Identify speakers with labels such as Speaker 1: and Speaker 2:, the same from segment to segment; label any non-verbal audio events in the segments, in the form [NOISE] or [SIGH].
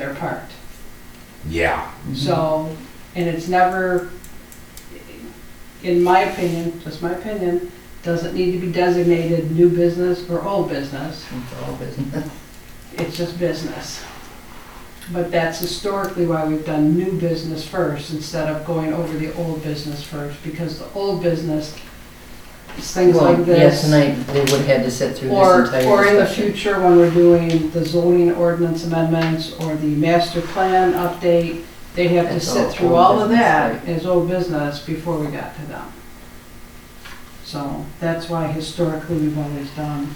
Speaker 1: they're parked.
Speaker 2: Yeah,
Speaker 3: Mm-hmm.
Speaker 1: So, and it's never, in my opinion, just my opinion, doesn't need to be designated new business or old business.
Speaker 4: It's all business.
Speaker 1: It's just business. But that's historically why we've done new business first instead of going over the old business first, because the old business is things
Speaker 4: Well,
Speaker 1: like this.
Speaker 4: Yeah, tonight, they would have had to sit through
Speaker 1: Or,
Speaker 4: this entire
Speaker 1: or in the
Speaker 4: discussion.
Speaker 1: future, when we're doing the zoning ordinance amendments or the master plan update, they have to
Speaker 4: That's
Speaker 1: sit
Speaker 4: all
Speaker 1: through
Speaker 4: old
Speaker 1: all of
Speaker 4: business,
Speaker 1: that as old business before we got to them. So that's why historically we've always done,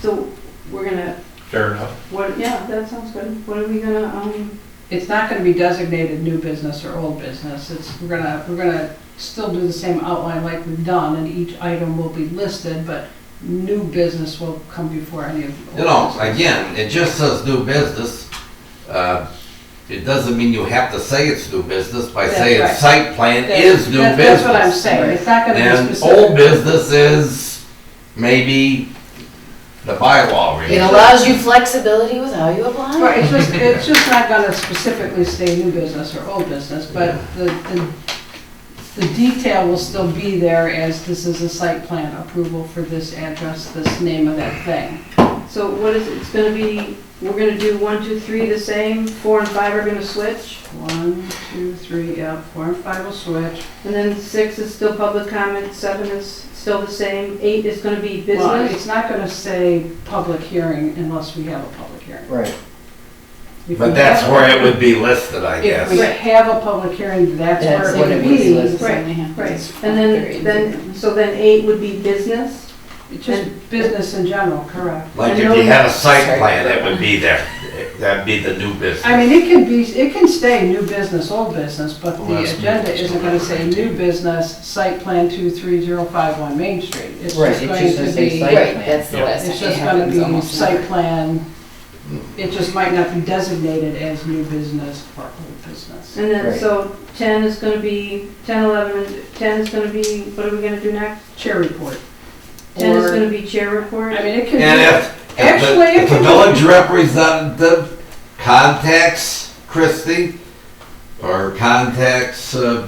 Speaker 5: So we're gonna,
Speaker 6: fair enough.
Speaker 5: what, yeah, that sounds good. What are we gonna, um,
Speaker 1: it's not gonna be designated new business or old business. It's, we're gonna, we're gonna still do the same outline like we've done and each item will be listed, but new business will come before any of. the
Speaker 2: you know, again, it just says new business. Uh, It doesn't mean you have to say it's new business by
Speaker 1: That's
Speaker 2: saying
Speaker 1: right.
Speaker 2: site plan is new
Speaker 1: That's-
Speaker 2: business.
Speaker 1: That's what I'm saying. It's not gonna be
Speaker 2: And
Speaker 1: specific.
Speaker 2: old business is maybe the bylaw
Speaker 3: It
Speaker 2: reason.
Speaker 3: allows you flexibility with how you apply.
Speaker 1: Right, it's just, it's just
Speaker 2: [LAUGHS]
Speaker 1: not gonna specifically say new business or old business, but the, the, the detail will still be there as this is a site plan approval for this address, this name of that thing.
Speaker 5: so what is, it's gonna be, we're gonna do one, two, three the same, four and five are gonna switch,
Speaker 1: One, two, three, yeah, four and five will switch.
Speaker 5: and then six is still public comment, seven is still the same, eight is gonna be
Speaker 1: Well,
Speaker 5: business.
Speaker 1: It's not gonna say public hearing unless we have a public hearing.
Speaker 4: Right,
Speaker 1: If we
Speaker 2: But that's
Speaker 1: have-
Speaker 2: where it would be listed, I
Speaker 1: If we
Speaker 2: guess.
Speaker 1: have a public hearing, that's
Speaker 4: That's
Speaker 1: where
Speaker 4: what
Speaker 1: it would
Speaker 4: it was
Speaker 1: be.
Speaker 4: listed.
Speaker 5: Right, Right, and then, then, so then eight would be business,
Speaker 1: It's Just business in general, correct?
Speaker 2: Like
Speaker 5: I
Speaker 2: if
Speaker 5: know
Speaker 2: you had a
Speaker 4: Sorry.
Speaker 2: site plan, that would be there. That'd be the new business.
Speaker 1: I mean, it can be, it can stay new business, old business, but
Speaker 6: Well,
Speaker 1: the
Speaker 6: that's-
Speaker 1: agenda isn't gonna say new business, site plan two three zero five one Main Street. It's
Speaker 4: Right,
Speaker 1: just
Speaker 4: it's
Speaker 1: going
Speaker 4: just gonna
Speaker 1: to
Speaker 4: say
Speaker 1: be,
Speaker 4: site-
Speaker 3: Right, that's the
Speaker 6: Yeah.
Speaker 3: last
Speaker 1: it's
Speaker 3: thing that
Speaker 1: just gonna
Speaker 3: happens
Speaker 1: be
Speaker 3: almost.
Speaker 1: site plan. It just might not be designated as new business or old business.
Speaker 5: and then,
Speaker 4: Right.
Speaker 5: so ten is gonna be, ten, eleven, and ten is gonna be, what are we gonna do next?
Speaker 1: Chair report.
Speaker 5: Ten is
Speaker 1: Or-
Speaker 5: gonna be chair report.
Speaker 1: I mean, it can
Speaker 2: And
Speaker 1: be,
Speaker 2: if, if the-
Speaker 1: Actually,
Speaker 2: if
Speaker 1: it
Speaker 2: the
Speaker 1: can-
Speaker 2: village representative contacts Christie or contacts uh,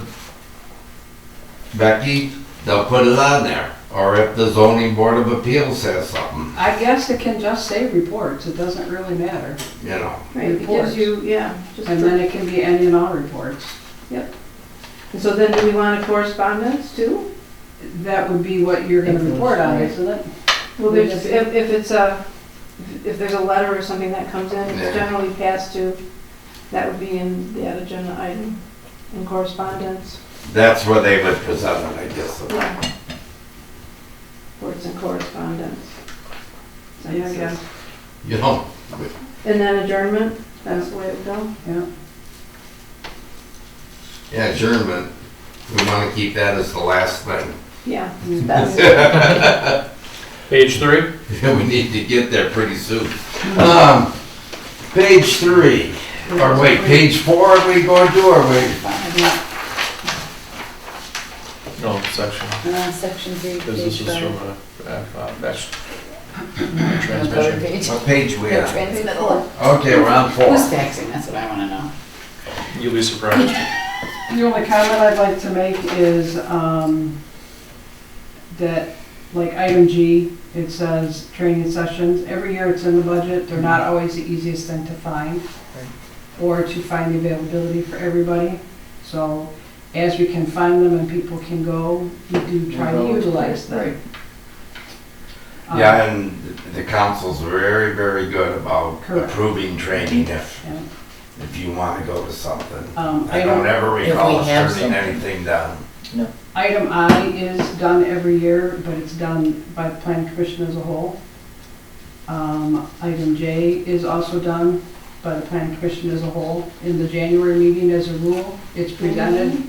Speaker 2: Becky, they'll put it on there. Or if the zoning board of appeals says something,
Speaker 1: I guess it can just say reports, it doesn't really matter.
Speaker 2: you know.
Speaker 5: Right, it gives you, yeah, just,
Speaker 1: And
Speaker 5: the-
Speaker 1: then it can be any and all reports.
Speaker 5: and so then do we want a correspondence too?
Speaker 1: That would be what you're gonna
Speaker 4: Influence,
Speaker 1: report on,
Speaker 4: right.
Speaker 1: isn't it?
Speaker 5: Well,
Speaker 1: We
Speaker 5: there's,
Speaker 1: just-
Speaker 5: if, if it's a, if there's a letter or something that comes in,
Speaker 2: Yeah.
Speaker 5: it's generally passed to, that would be in that agenda item, in correspondence,
Speaker 2: That's where they would present it, I guess.
Speaker 5: yeah. Or it's in correspondence. So,
Speaker 1: Yeah, I
Speaker 5: yeah.
Speaker 1: guess.
Speaker 2: You know,
Speaker 5: And then adjournment, that's the way it would go.
Speaker 1: Yeah.
Speaker 2: yeah, adjournment, we want to keep that as the last thing. [LAUGHS]
Speaker 5: Yeah,
Speaker 1: Mm.
Speaker 5: that's,
Speaker 6: Page three?
Speaker 2: We need to get there pretty soon. Um, Page three, or wait, page four are we going to, or wait?
Speaker 6: No, section.
Speaker 3: Uh, Section three,
Speaker 6: Because this
Speaker 3: page
Speaker 6: is from
Speaker 3: five.
Speaker 6: a, uh, that's
Speaker 3: No, go to
Speaker 6: transmission.
Speaker 3: page.
Speaker 1: [LAUGHS]
Speaker 2: What page we
Speaker 3: The
Speaker 2: on?
Speaker 3: transmittal.
Speaker 2: Okay, we're on four.
Speaker 3: Who's faxing, that's what I wanna know.
Speaker 6: You'll be surprised.
Speaker 1: The only comment I'd like to make is um, that, like item G, it says training sessions. Every year it's in the budget. They're not always the easiest thing to find or to find the availability for everybody. So as we can find them and people can go, we do try to utilize them.
Speaker 4: right.
Speaker 1: Um,
Speaker 2: Yeah, and the council's very, very good about
Speaker 1: Correct.
Speaker 2: approving training if,
Speaker 1: Yeah.
Speaker 2: if you want to go to something.
Speaker 1: Um,
Speaker 2: I
Speaker 1: Item
Speaker 2: don't ever
Speaker 4: If we
Speaker 2: recall us
Speaker 4: have
Speaker 2: turning
Speaker 4: something.
Speaker 2: anything down.
Speaker 1: Item I is done every year, but it's done by the planning commission as a whole. Um, Item J is also done by the planning commission as a whole. In the January meeting, as a rule, it's presented.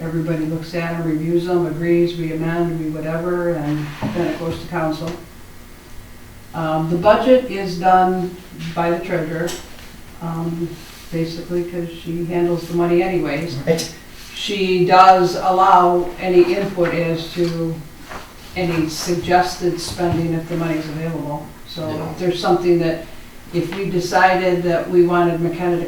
Speaker 1: Everybody looks at them, reviews them, agrees, we amend, we whatever, and then it goes to council. Um, The budget is done by the treasurer, um, basically, because she handles the money anyways.
Speaker 4: right.
Speaker 1: She does allow any input as to any suggested spending if the money's available. So
Speaker 2: Yeah.
Speaker 1: if there's something that, if we decided that we wanted McKenna to